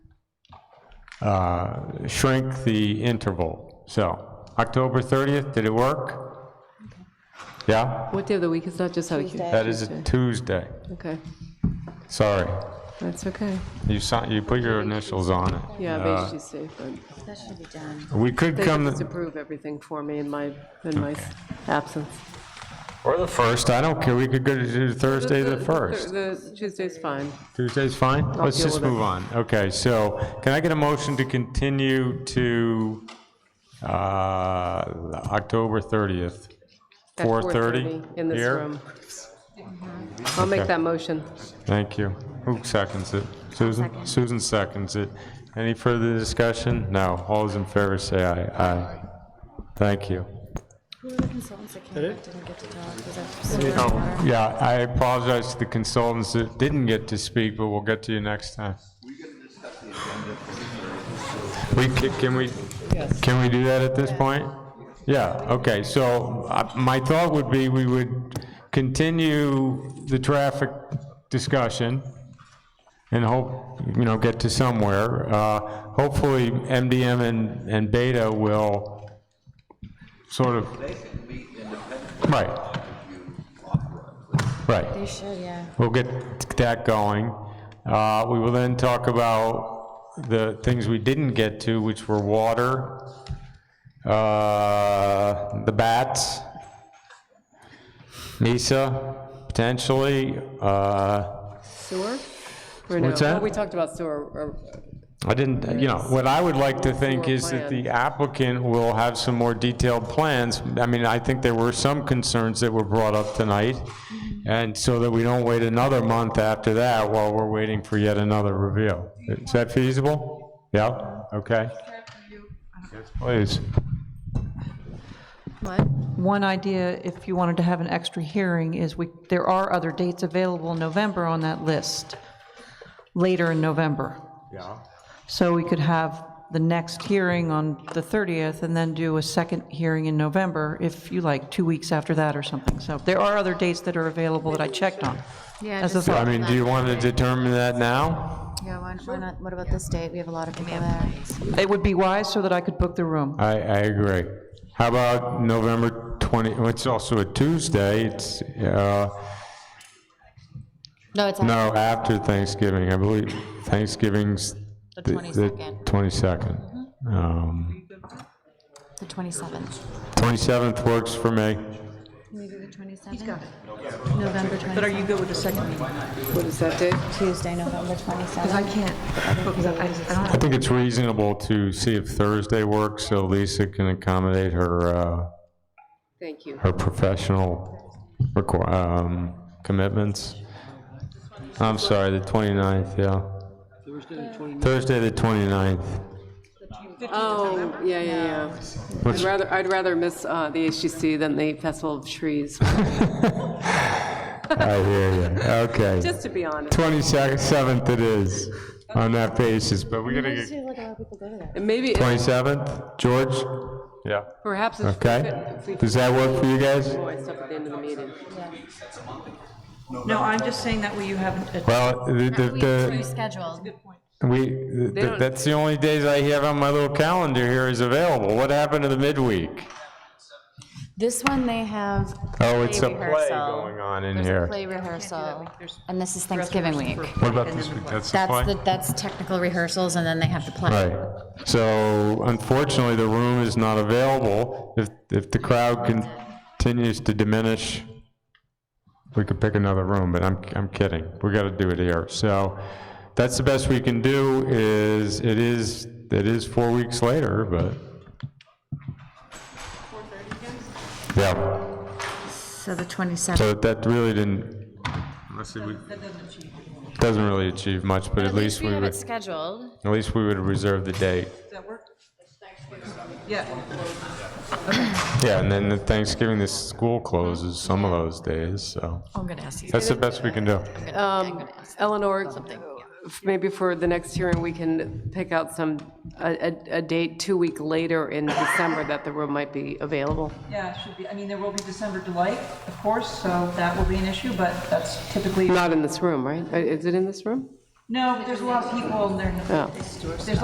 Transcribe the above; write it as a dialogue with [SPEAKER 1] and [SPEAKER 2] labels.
[SPEAKER 1] uh, shrink the interval. So, October 30th, did it work? Yeah?
[SPEAKER 2] What day of the week is that? Just how you.
[SPEAKER 3] Tuesday.
[SPEAKER 1] That is a Tuesday.
[SPEAKER 2] Okay,
[SPEAKER 1] Sorry.
[SPEAKER 2] that's okay.
[SPEAKER 1] You si- you put your initials on it.
[SPEAKER 2] Yeah,
[SPEAKER 1] Uh,
[SPEAKER 2] I'm HGC, but
[SPEAKER 3] That should be done.
[SPEAKER 1] We could
[SPEAKER 2] they
[SPEAKER 1] come,
[SPEAKER 2] just approve everything for me in my, in my absence.
[SPEAKER 1] or the 1st, I don't care, we could go to do Thursday the
[SPEAKER 2] thir-
[SPEAKER 1] 1st.
[SPEAKER 2] The Tuesday's fine.
[SPEAKER 1] Tuesday's fine? Let's
[SPEAKER 2] deal
[SPEAKER 1] just
[SPEAKER 2] with it.
[SPEAKER 1] move on. Okay, so can I get a motion to continue to uh, October 30th?
[SPEAKER 2] At
[SPEAKER 1] 4:30?
[SPEAKER 2] In this
[SPEAKER 1] here?
[SPEAKER 2] room. I'll make
[SPEAKER 1] Okay.
[SPEAKER 2] that motion.
[SPEAKER 1] Thank you. Who seconds it? Susan? Susan seconds it. Any further discussion? No. All those in favor say aye. Aye. Thank you.
[SPEAKER 3] Who are the consultants that came back didn't get to talk? Was that someone
[SPEAKER 1] Oh,
[SPEAKER 3] or-
[SPEAKER 1] yeah, I apologize to the consultants that didn't get to speak, but we'll get to you next time. We, ca- can we, can we do that at this point? Yeah, okay, so uh, my thought would be we would continue the traffic discussion and hope, you know, get to somewhere. Uh, Hopefully, MDM and, and Beta will sort of. Right. Right.
[SPEAKER 3] They should, yeah.
[SPEAKER 1] We'll get that going. Uh, We will then talk about the things we didn't get to, which were water, uh, the bats, NISA, potentially. uh,
[SPEAKER 2] Sewer? Or no?
[SPEAKER 1] What's that?
[SPEAKER 2] Oh, We talked about sewer, or-
[SPEAKER 1] I didn't, you know, what I would like to think is that the applicant will have some more detailed plans. I mean, I think there were some concerns that were brought up tonight, and so that we don't wait another month after that while we're waiting for yet another review. Is that feasible? Yeah, okay. Yes, please.
[SPEAKER 4] One idea, if you wanted to have an extra hearing, is we, there are other dates available in November on that list, later in November.
[SPEAKER 1] Yeah.
[SPEAKER 4] So we could have the next hearing on the 30th and then do a second hearing in November, if you like, two weeks after that or something. So there are other dates that are available that I checked on.
[SPEAKER 3] Yeah,
[SPEAKER 4] As a
[SPEAKER 3] just-
[SPEAKER 1] So, I
[SPEAKER 4] thought,
[SPEAKER 1] mean, do you want to determine that now?
[SPEAKER 3] Yeah, why why not, what about this date? We have a lot of people there.
[SPEAKER 4] it would be wise so that I could book the room.
[SPEAKER 1] I, I agree. How about November 20, well, it's also a Tuesday, it's, uh,
[SPEAKER 3] No, it's after
[SPEAKER 1] No, after Thanksgiving, I believe Thanksgiving's.
[SPEAKER 3] The
[SPEAKER 1] th-
[SPEAKER 3] 22nd.
[SPEAKER 1] 22nd. Um,
[SPEAKER 3] the 27th.
[SPEAKER 1] 27th works for me.
[SPEAKER 3] Maybe the 27th? November 27th.
[SPEAKER 4] But are you good with the second meeting?
[SPEAKER 2] what is that date?
[SPEAKER 3] Tuesday, November 27th.
[SPEAKER 4] can't book, I don't
[SPEAKER 1] I think it's reasonable to see if Thursday works, so Lisa can accommodate her, uh,
[SPEAKER 2] Thank you.
[SPEAKER 1] her professional requ- um, commitments. I'm sorry, the 29th, yeah. Thursday, the 29th.
[SPEAKER 2] Oh, yeah, yeah, yeah. I'd rather, I'd rather miss uh, the HGC than the Festival of Trees,
[SPEAKER 1] I hear you, okay.
[SPEAKER 2] just to be honest.
[SPEAKER 1] 27th it is, on that basis, but we're gonna get
[SPEAKER 2] And maybe,
[SPEAKER 1] 27th, George? Yeah.
[SPEAKER 2] perhaps if we
[SPEAKER 1] Okay.
[SPEAKER 2] could- if we could
[SPEAKER 1] Does that work for you guys?
[SPEAKER 2] voice up at the end of the meeting.
[SPEAKER 4] No, I'm just saying that way you have a
[SPEAKER 1] Well, the, the,
[SPEAKER 3] Rescheduled.
[SPEAKER 1] the, we, th- th-
[SPEAKER 2] don't-
[SPEAKER 1] that's the only days I have on my little calendar here is available. What happened to the midweek?
[SPEAKER 3] This one, they have.
[SPEAKER 1] Oh, it's a play
[SPEAKER 3] rehearsal.
[SPEAKER 1] going on in
[SPEAKER 3] There's a
[SPEAKER 1] here.
[SPEAKER 3] play rehearsal, and this is Thanksgiving week.
[SPEAKER 1] What about this week? That's the
[SPEAKER 3] That's the, that's technical rehearsals, and then they have to play.
[SPEAKER 1] Right. So unfortunately, the room is not available. If, if the crowd continues to diminish, we could pick another room, but I'm, I'm kidding. We got to do it here. So that's the best we can do is, it is, it is four weeks later, but. Yeah,
[SPEAKER 3] So the 27th.
[SPEAKER 1] so that really didn't. Unless it would. Doesn't really achieve much, but at least
[SPEAKER 3] we
[SPEAKER 1] we
[SPEAKER 3] have
[SPEAKER 1] would,
[SPEAKER 3] it scheduled.
[SPEAKER 1] at least we would reserve the date.
[SPEAKER 4] Yeah.
[SPEAKER 1] Yeah, and then the Thanksgiving, the school closes some of those days, so
[SPEAKER 3] I'm going to ask you.
[SPEAKER 1] that's the best we can do.
[SPEAKER 2] Um, Eleanor, f- maybe for the next hearing, we can pick out some, a, a- a date two week later in December that the room might be available.
[SPEAKER 4] Yeah, it should be, I mean, there will be December delight, of course, so that will be an issue, but that's typically,
[SPEAKER 2] Not in this room, right? Uh, Is it in this room?
[SPEAKER 4] no, there's a lot of people, and they're,
[SPEAKER 2] Yeah.
[SPEAKER 4] there's